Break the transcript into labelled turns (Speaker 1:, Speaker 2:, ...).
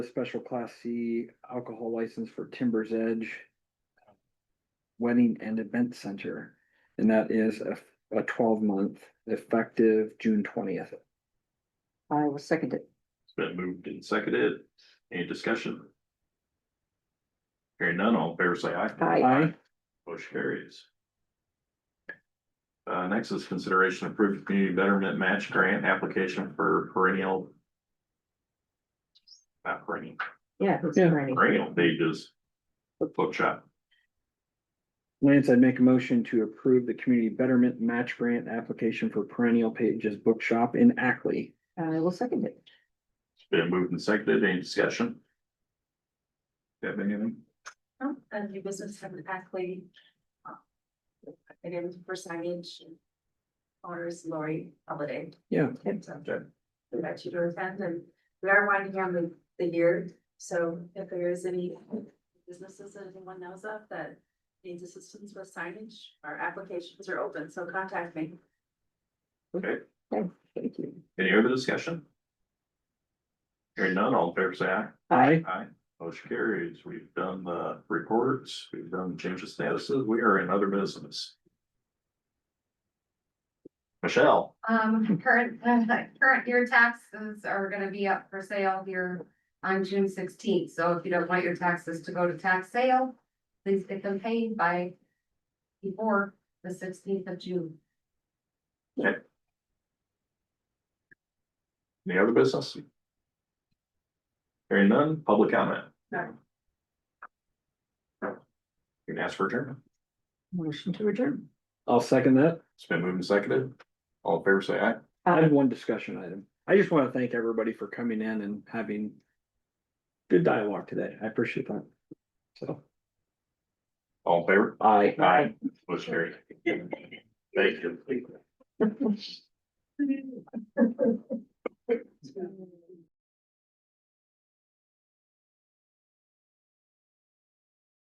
Speaker 1: a special class C alcohol license for Timber's Edge Wedding and Event Center, and that is a, a twelve month effective June twentieth.
Speaker 2: I will second it.
Speaker 3: It's been moved and seconded. Any discussion? Hearing none, all in favor say aye.
Speaker 2: Aye.
Speaker 1: Aye.
Speaker 3: Motion carries. Uh, next is consideration approved community betterment match grant application for perennial. Not perennial,
Speaker 2: Yeah. it's
Speaker 1: Yeah.
Speaker 2: Franny.
Speaker 3: perennial pages. Bookshop.
Speaker 1: Lance, I'd make a motion to approve the community betterment match grant application for Perennial Pages Bookshop in Ackley.
Speaker 2: I will second it.
Speaker 3: It's been moved and seconded. Any discussion? You Have anything?
Speaker 4: Um, And new business have Ackley. uh, Again, for signage. and Honors Lori Holiday.
Speaker 1: Yeah.
Speaker 4: And so, We invite you to attend and we are winding down the, the year, so if there is any businesses that anyone knows of that. Needs assistance with signage, our applications are open, so contact me.
Speaker 2: Thank you.
Speaker 3: Any other discussion? Hearing none, all in favor say aye.
Speaker 1: Aye.
Speaker 3: Aye, motion carries. We've done the reports, we've done change of statuses, we are in other business. Michelle,
Speaker 5: Um, current, current year taxes are gonna be up for sale here on June sixteenth, so if you don't want your taxes to go to tax sale, please get them paid by before the sixteenth of June.
Speaker 3: any other business? Hearing none, public comment.
Speaker 4: No.
Speaker 3: You can ask for adjournment.
Speaker 2: Motion to adjourn.
Speaker 1: I'll second that.
Speaker 3: It's been moved and seconded. All in favor, say aye.
Speaker 1: I have one discussion item. I just want to thank everybody for coming in and having good dialogue today. I appreciate that. So,
Speaker 3: All in favor?
Speaker 1: aye.
Speaker 3: Motion carried. Thank you.